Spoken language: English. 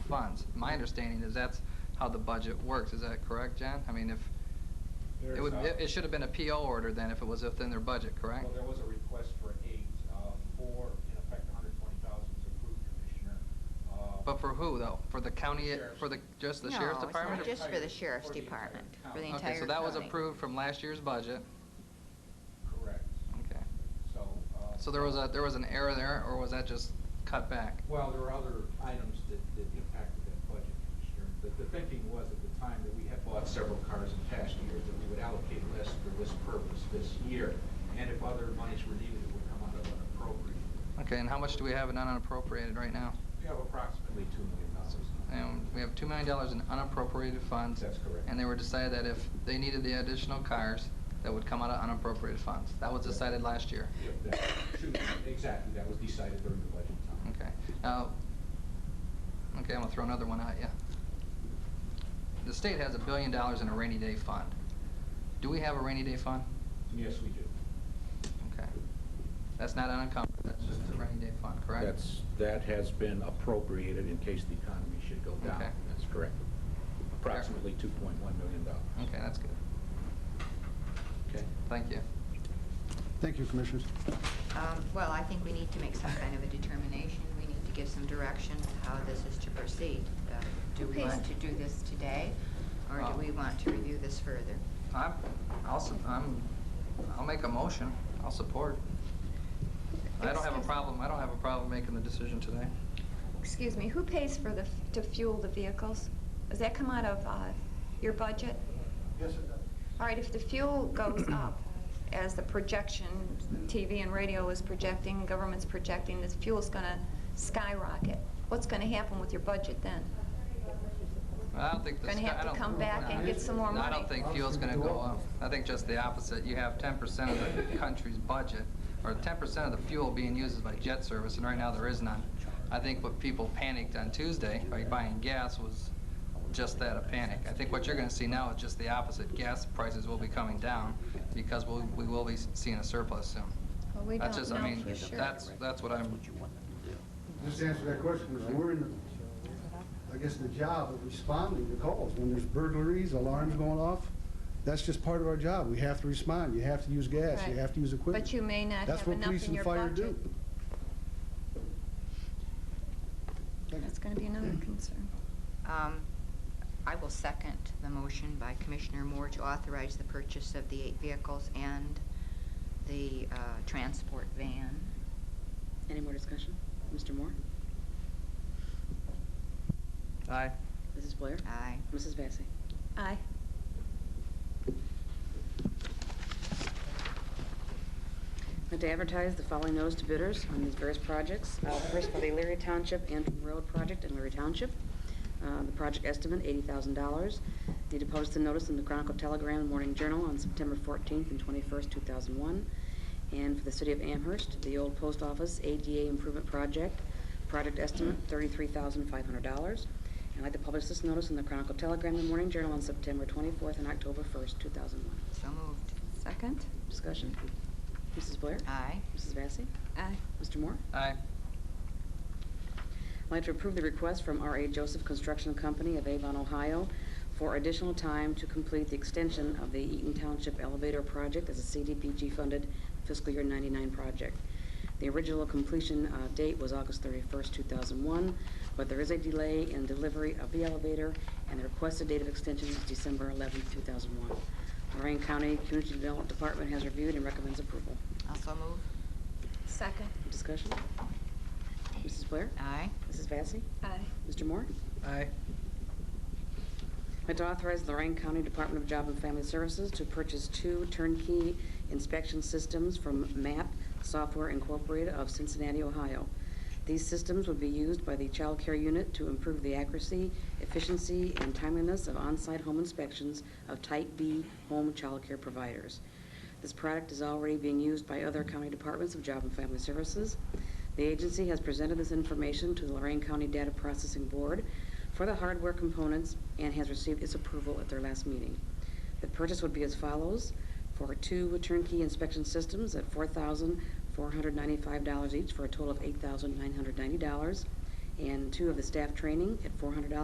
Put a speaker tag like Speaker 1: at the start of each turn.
Speaker 1: funds. My understanding is that's how the budget works. Is that correct, John? I mean, if,
Speaker 2: There's
Speaker 1: it would,
Speaker 2: a-
Speaker 1: it it should have been a PO order then if it was within their budget, correct?
Speaker 2: Well, there was a request for eight, uh, four, in effect, a hundred twenty thousand is approved, Commissioner. Uh,
Speaker 1: But for who though? For the county,
Speaker 2: Sheriff's.
Speaker 1: for the, just the sheriff's
Speaker 3: No, it's not
Speaker 1: department? or-
Speaker 3: just for the sheriff's
Speaker 2: For the entire
Speaker 3: department,
Speaker 2: county.
Speaker 3: for the
Speaker 1: Okay,
Speaker 3: entire
Speaker 1: so that was
Speaker 3: county.
Speaker 1: approved from last year's budget.
Speaker 2: Correct.
Speaker 1: Okay.
Speaker 2: So. uh,
Speaker 1: So there was a, there was an error there, or was that just cut back?
Speaker 2: Well, there were other items that, that impacted that budget, Commissioner. The, the thinking was at the time that we had bought several cars in past years, that we would allocate less for this purpose this year. And if other monies were needed, it would come out of unappropriated.
Speaker 1: Okay, and how much do we have in unappropriated right now?
Speaker 2: We have approximately two million dollars.
Speaker 1: And Um, we have two million dollars in unappropriated funds.
Speaker 2: That's correct.
Speaker 1: And they were decided that if they needed the additional cars, that would come out of unappropriated funds. That was decided last year.
Speaker 2: Yep, that- shoot, Exactly, that was decided during the budget time.
Speaker 1: Okay, now, okay, I'm gonna throw another one at you. The state has a billion dollars in a rainy day fund. Do we have a rainy day fund?
Speaker 2: Yes, we do.
Speaker 1: Okay. That's not unencumbered, that's just a rainy day fund, correct?
Speaker 4: That's, that has been appropriated in case the economy should go down.
Speaker 1: Okay.
Speaker 4: That's correct. Approximately $2.1 million.
Speaker 1: Okay, that's good.
Speaker 4: Okay.
Speaker 1: Thank you.
Speaker 5: Thank you, Commissioners.
Speaker 3: Um, Well, I think we need to make some kind of a determination. We need to give some direction how this is to proceed. Uh, Do we
Speaker 1: Okay.
Speaker 3: want to do this today, or do
Speaker 1: Um,
Speaker 3: we want to review this further?
Speaker 1: I'm, I'll, su- I'm, I'll make a motion, I'll support. I don't have a
Speaker 6: Excuse-
Speaker 1: problem, I don't have a problem making the decision today.
Speaker 6: Excuse me, who pays for the, f- to fuel the vehicles? Does that come out of uh, your budget?
Speaker 2: Yes, it does.
Speaker 6: All right, if the fuel goes up, as the projection, TV and radio is projecting, government's projecting, this fuel's going to skyrocket. What's going to happen with your budget then?
Speaker 1: I don't think the
Speaker 6: Gonna
Speaker 1: sky-
Speaker 6: have
Speaker 1: I
Speaker 6: to
Speaker 1: don't-
Speaker 6: come back and get some more
Speaker 1: No, I don't
Speaker 6: money.
Speaker 1: think fuel's gonna go up. I think just the opposite. You have ten percent of the country's budget, or ten percent of the fuel being used is by jet service, and right now there is none. I think what people panicked on Tuesday by buying gas was just that, a panic. I think what you're gonna see now is just the opposite. Gas prices will be coming down because we'll, we will be seeing a surplus soon.
Speaker 6: Well, we
Speaker 1: That's
Speaker 6: don't
Speaker 1: just, I
Speaker 6: know
Speaker 1: mean,
Speaker 6: for sure.
Speaker 1: that's, that's what I'm,
Speaker 5: Just answer that question, because we're in, the- I guess, the job of responding to calls. When there's burglaries, alarms going off, that's just part of our job. We have to respond. You have to use gas, you
Speaker 6: Right.
Speaker 5: have to use equipment.
Speaker 6: But you may not
Speaker 5: That's
Speaker 6: have
Speaker 5: what
Speaker 6: enough
Speaker 5: police
Speaker 6: in
Speaker 5: and
Speaker 6: your
Speaker 5: fire
Speaker 6: budget.
Speaker 5: do. Thank you.
Speaker 6: That's going to be another concern.
Speaker 3: Um, I will second the motion by Commissioner Moore to authorize the purchase of the eight vehicles and the uh, transport van.
Speaker 7: Any more discussion? Mr. Moore?
Speaker 1: aye.
Speaker 7: Mrs. Blair?
Speaker 3: Aye.
Speaker 7: Mrs. Vacy?
Speaker 6: Aye.
Speaker 7: And to advertise the following notice to bidders on these various projects. Uh, First by the Leary Township Antrim Road Project in Leary Township. Uh, The project estimate, $80,000. Need to post the notice in the Chronicle Telegram and Morning Journal on September 14th and 21st, 2001. And for the city of Amherst, the old post office ADA Improvement Project, project estimate, $33,500. And like to publish this notice in the Chronicle Telegram and Morning Journal on September 24th and October 1st, 2001.
Speaker 3: So moved.
Speaker 6: Second?
Speaker 7: Discussion? Mrs. Blair?
Speaker 3: Aye.
Speaker 7: Mrs. Vacy?
Speaker 6: Aye.
Speaker 7: Mr. Moore?
Speaker 1: Aye.
Speaker 7: I'd like to approve the request from R.A. Joseph Construction Company of Avon, Ohio for additional time to complete the extension of the Eaton Township Elevator Project as a CDBG-funded fiscal year 99 project. The original completion uh, date was August 31st, 2001, but there is a delay in delivery of the elevator, and the requested date of extension is December 11th, 2001. Lorraine County Community Development Department has reviewed and recommends approval.
Speaker 3: Also move.
Speaker 6: Second?
Speaker 7: Discussion? Mrs. Blair?
Speaker 3: Aye.
Speaker 7: Mrs. Vacy?
Speaker 6: Aye.
Speaker 7: Mr. Moore?
Speaker 1: Aye.
Speaker 7: And to authorize Lorraine County Department of Job and Family Services to purchase two turnkey inspection systems from MAP Software Incorporated of Cincinnati, Ohio. These systems would be used by the Child Care Unit to improve the accuracy, efficiency, and timeliness of on-site home inspections of Type B home child care providers. This product is already being used by other county departments of Job and Family Services. The agency has presented this information to the Lorraine County Data Processing Board for the hardware components and has received its approval at their last meeting. The purchase would be as follows, for two turnkey inspection systems at $4,495 each for a total of $8,990. and two of the staff training at $400